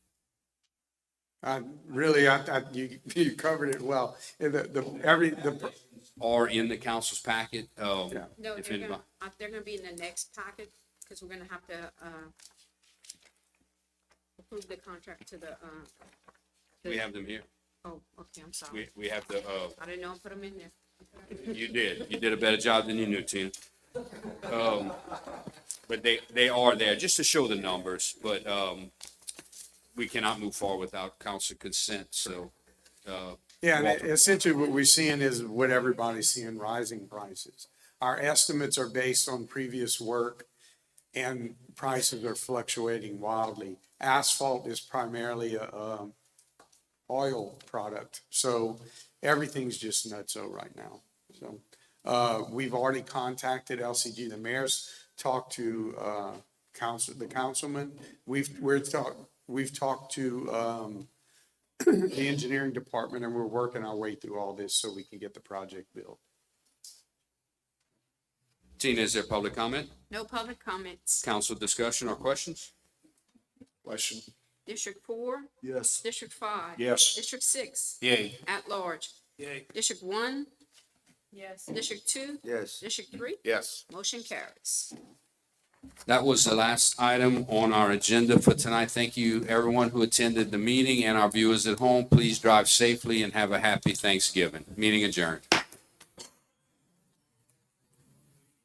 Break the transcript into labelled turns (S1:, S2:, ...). S1: I Uh, really, I, I, you, you covered it well. And The, the, every, the,
S2: are in the council's packet. um,
S1: Yeah.
S3: No,
S2: if
S3: they're
S2: anybody-
S3: gonna, uh, they're gonna be in the next packet, because we're gonna have to, uh, approve the contract to the, uh,
S2: We have them here.
S3: oh, okay, I'm sorry.
S2: We, we have the, uh,
S3: I didn't know I put them in there.
S2: you did. You did a better job than you knew, Tina. Um, but they, they are there just to show the numbers, but, um, we cannot move forward without council consent, so, uh,
S1: yeah, and e-,
S2: Walter.
S1: essentially what we're seeing is what everybody's seeing, rising prices. Our estimates are based on previous work and prices are fluctuating wildly. Asphalt is primarily a, um, oil product, so everything's just nutso right now. So, uh, we've already contacted LCG, the mayor's talked to, uh, council, the councilman. We've, we're talk, we've talked to, um, the engineering department and we're working our way through all this so we can get the project built.
S2: Tina, is there public comment?
S3: No public comments.
S2: Council discussion or questions?
S4: Question.
S3: District four,
S4: Yes.
S3: district five.
S4: Yes.
S3: District six,
S4: Yay.
S3: at large.
S4: Yay.
S3: District one? Yes. District two?
S4: Yes.
S3: District three?
S4: Yes.
S3: Motion carries.
S2: That was the last item on our agenda for tonight. Thank you, everyone who attended the meeting and our viewers at home. Please drive safely and have a happy Thanksgiving. Meeting adjourned.